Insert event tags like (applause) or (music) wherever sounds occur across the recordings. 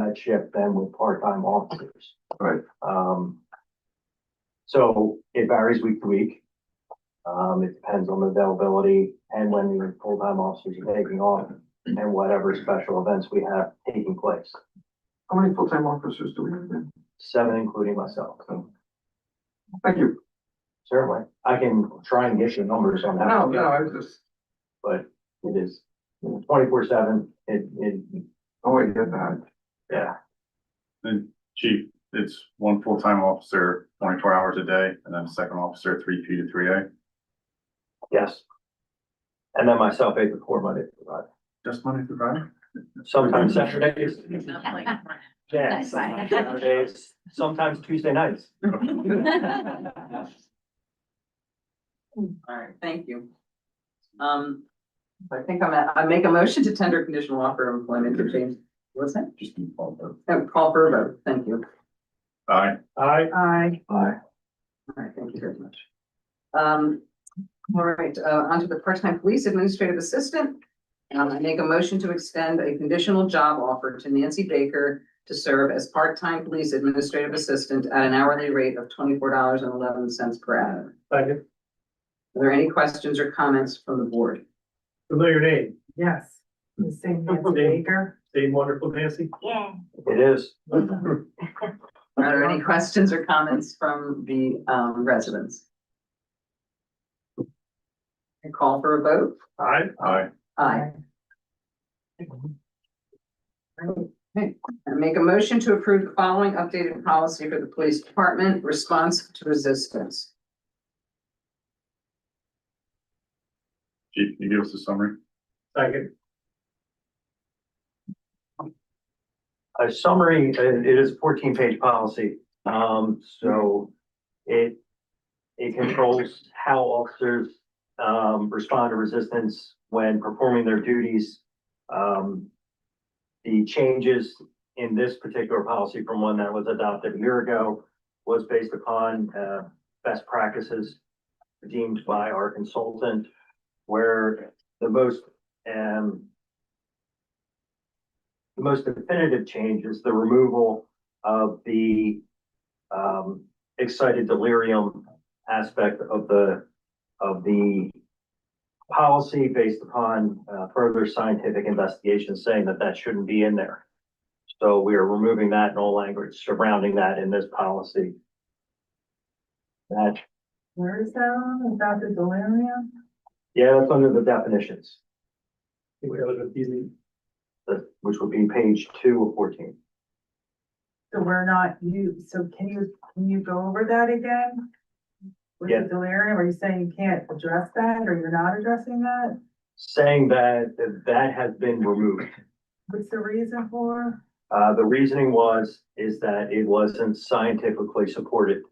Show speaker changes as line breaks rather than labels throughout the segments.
night shift than with part-time officers.
Right.
Um, so it varies week to week. Um, it depends on the availability and when the full-time officers are taking off and whatever special events we have taking place,
How many full-time officers do we have then?
seven including myself.
Thank you.
Certainly, I can try and get you numbers on that.
No, no, I was just,
But it is twenty-four seven, it, it,
oh, I get that.
yeah,
Then chief, it's one full-time officer, twenty-four hours a day, and then a second officer, three P to three A.
yes. And then myself, eight to four Monday, through Friday.
Just Monday through Friday?
sometimes Saturdays. Yeah,
That's fine.
sometimes Saturdays, sometimes Tuesday nights.
All right, thank you. Um, I think I'm at, I make a motion to tender conditional offer of employment to James, what's that?
Just be called though.
Oh, Call for a vote, thank you.
Aye,
I.
Aye.
Aye.
All right, thank you very much. Um, all right, uh, onto the part-time police administrative assistant. Um, I make a motion to extend a conditional job offer to Nancy Baker to serve as part-time police administrative assistant at an hourly rate of twenty-four dollars and eleven cents per hour.
Second,
Are there any questions or comments from the board?
familiar name,
Yes,
(laughs)
the same Nancy
Name.
Baker.
same wonderful Nancy? Yeah. It is.
Are there any questions or comments from the um residents? I call for a vote.
Aye.
aye,
Aye. Okay. I make a motion to approve the following updated policy for the police department, response to resistance.
chief, can you give us a summary?
Second. A summary, uh, it is fourteen page policy, um, so it. It controls how officers, um, respond to resistance when performing their duties. Um. The changes in this particular policy from one that was adopted a year ago was based upon, uh, best practices. Deemed by our consultant, where the most um. The most definitive change is the removal of the um excited delirium aspect of the of the policy based upon uh further scientific investigation saying that that shouldn't be in there. So we are removing that in all language surrounding that in this policy. That,
Where is that on? Is that the delirium?
yeah, that's under the definitions.
think we have it easy.
the- which would be page two of fourteen.
So we're not you, so can you, can you go over that again? With
Yeah.
the delirium, are you saying you can't address that or you're not addressing that?
Saying that that that has been removed.
What's the reason for?
Uh, the reasoning was, is that it wasn't scientifically supported.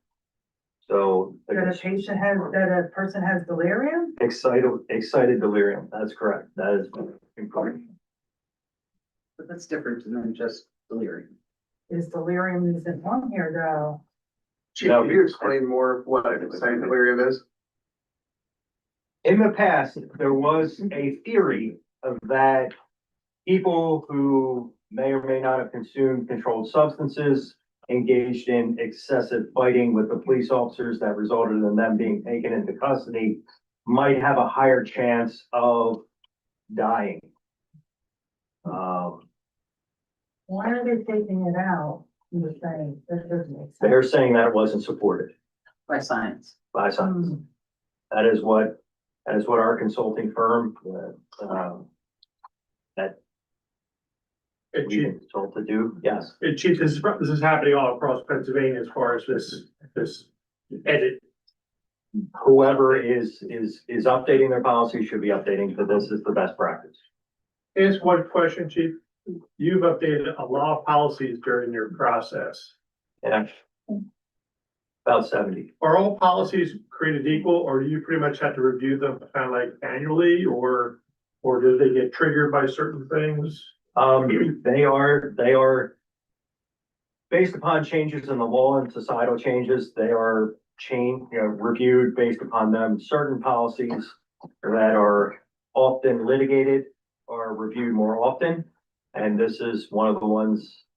So.
That a patient has, that a person has delirium?
Excited, excited delirium, that's correct, that is incorrect.
But that's different than just delirium.
Is delirium isn't on here though?
Chief, can you explain
more what excited delirium is?
In the past, there was a theory of that people who may or may not have consumed controlled substances engaged in excessive fighting with the police officers that resulted in them being taken into custody might have a higher chance of dying. Um,
Why are they taking it out? You were saying, that doesn't make sense.
they're saying that it wasn't supported
By science.
by science.
Hmm.
That is what, that is what our consulting firm, uh, um,
Hey,
we
Chief,
consult to do, yes.
hey, Chief, this is, this is happening all across Pennsylvania as far as this, this edit.
whoever is, is, is updating their policy should be updating, that this is the best practice.
Here's one question, Chief. You've updated a lot of policies during your process.
Yeah. About seventy.
Are all policies created equal, or do you pretty much have to review them kind of like annually, or, or do they get triggered by certain things?
Um, they are, they are based upon changes in the law and societal changes, they are chain, you know, reviewed based upon them. Certain policies that are often litigated are reviewed more often. And this is one of the ones